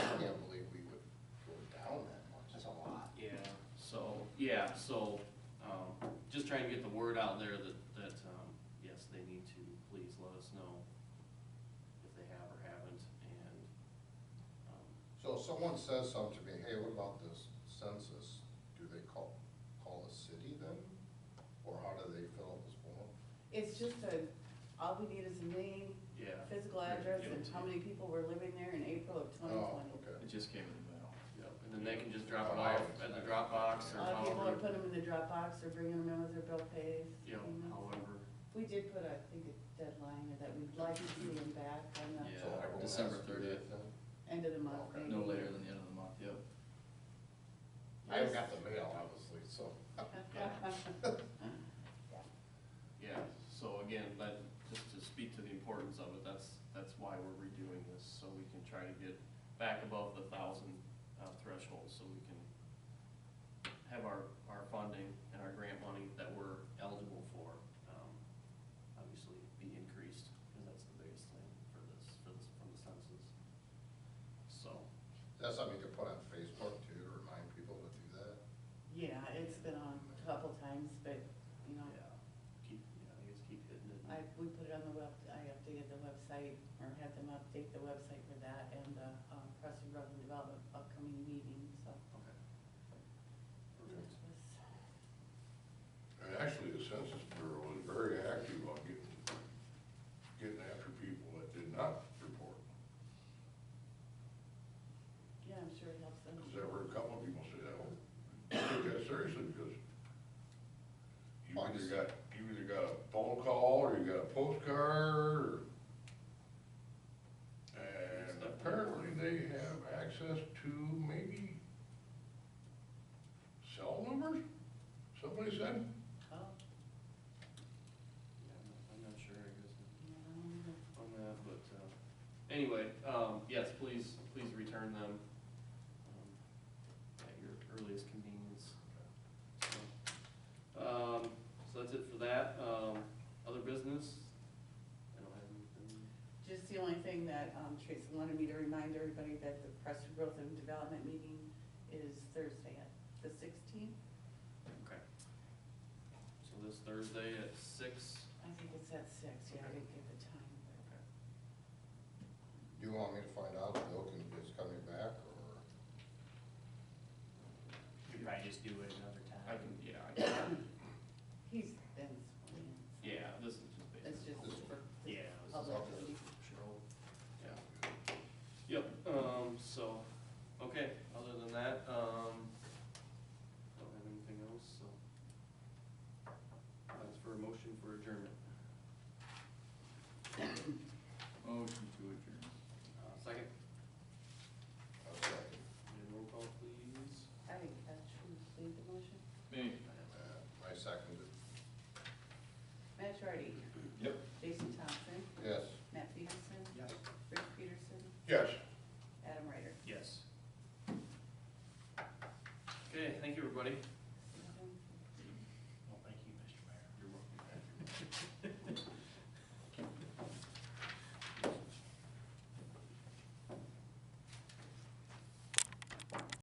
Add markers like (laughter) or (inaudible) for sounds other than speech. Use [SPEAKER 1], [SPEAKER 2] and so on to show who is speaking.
[SPEAKER 1] yeah, so, um, just trying to get the word out there that, that, um, yes, they need to please let us know if they have or haven't, and, um,
[SPEAKER 2] So if someone says something to me, hey, what about this census? Do they call, call a city then? Or how do they fill out this form?
[SPEAKER 3] It's just a, all we need is a name,
[SPEAKER 1] yeah.
[SPEAKER 3] physical address, and how many people were living there in April of twenty
[SPEAKER 2] Oh,
[SPEAKER 3] twenty.
[SPEAKER 2] okay.
[SPEAKER 4] It just came in the mail.
[SPEAKER 1] Yep, and then they can just drop it off at the Dropbox
[SPEAKER 3] A
[SPEAKER 1] or
[SPEAKER 3] lot of people are
[SPEAKER 1] however,
[SPEAKER 3] putting them in the Dropbox or bringing them in with their bill pays.
[SPEAKER 1] you know,
[SPEAKER 3] you know.
[SPEAKER 1] however,
[SPEAKER 3] We did put, I think, a deadline that we'd like to see them back on
[SPEAKER 4] Yeah,
[SPEAKER 2] So
[SPEAKER 3] the
[SPEAKER 2] everyone has
[SPEAKER 4] December
[SPEAKER 2] to do
[SPEAKER 4] 30th.
[SPEAKER 2] that then?
[SPEAKER 3] end of the month,
[SPEAKER 2] Okay.
[SPEAKER 3] maybe. (laughs)
[SPEAKER 4] No later than the end of the month, yep.
[SPEAKER 2] I haven't got the mail, obviously, so.
[SPEAKER 1] yeah. So again, but just to speak to the importance of it, that's, that's why we're redoing this, so we can try to get back above the thousand uh, threshold, so we can have our, our funding and our grant money that we're eligible for, um, obviously be increased, because that's the biggest thing for this, for this, from the census. So,
[SPEAKER 2] That's something you could put on Facebook too, to remind people to do that.
[SPEAKER 3] Yeah, it's been on a couple times, but, you know,
[SPEAKER 1] yeah, keep, yeah, I guess keep hitting it.
[SPEAKER 3] I, we put it on the web, I updated the website, or had them update the website for that, and the um, Preston Growth and Development upcoming meeting, so.
[SPEAKER 1] Okay.
[SPEAKER 3] that
[SPEAKER 1] Perfect.
[SPEAKER 3] was-
[SPEAKER 5] And actually, the Census Bureau was very active on getting, getting after people that did not report.
[SPEAKER 3] Yeah, I'm sure it helps them.
[SPEAKER 5] Because there were a couple of people said, oh, take that seriously, because you either got, you either got a phone call, or you got a postcard, or... And apparently, they have access to maybe cell numbers, somebody said?
[SPEAKER 3] Oh,
[SPEAKER 1] Yeah, I'm not- I'm not sure, I guess.
[SPEAKER 3] yeah, I don't know.
[SPEAKER 1] on that, but, uh, anyway, um, yes, please, please return them, um, at your earliest convenience. So, Um, so that's it for that, um, other business? I don't have anything.
[SPEAKER 3] Just the only thing that um, Teresa wanted me to remind everybody that the Preston Growth and Development meeting is Thursday at the sixteenth.
[SPEAKER 1] Okay. So this Thursday at six,
[SPEAKER 3] I think it's at six, yeah, I didn't get the time.
[SPEAKER 1] okay,
[SPEAKER 2] Do you want me to find out if Bill can, is coming back or?
[SPEAKER 6] We could probably just do it another time.
[SPEAKER 1] I can, yeah, I can,
[SPEAKER 3] but He's been sworn in. so
[SPEAKER 1] yeah, this is just basically.
[SPEAKER 3] It's just for. the
[SPEAKER 6] Yeah, this is
[SPEAKER 3] public
[SPEAKER 2] all
[SPEAKER 3] to
[SPEAKER 2] good.
[SPEAKER 3] see.
[SPEAKER 1] Cheryl. Yeah. Yep, um, so, okay, other than that, um, don't have anything else, so. That's for a motion for adjournment.
[SPEAKER 4] Motion to adjourn.
[SPEAKER 1] Uh, second, and roll call please.
[SPEAKER 3] I think that's true, leave the motion.
[SPEAKER 4] Me?
[SPEAKER 2] Uh, I seconded.
[SPEAKER 3] Matt Charity,
[SPEAKER 4] Yep.
[SPEAKER 3] Jason Thompson,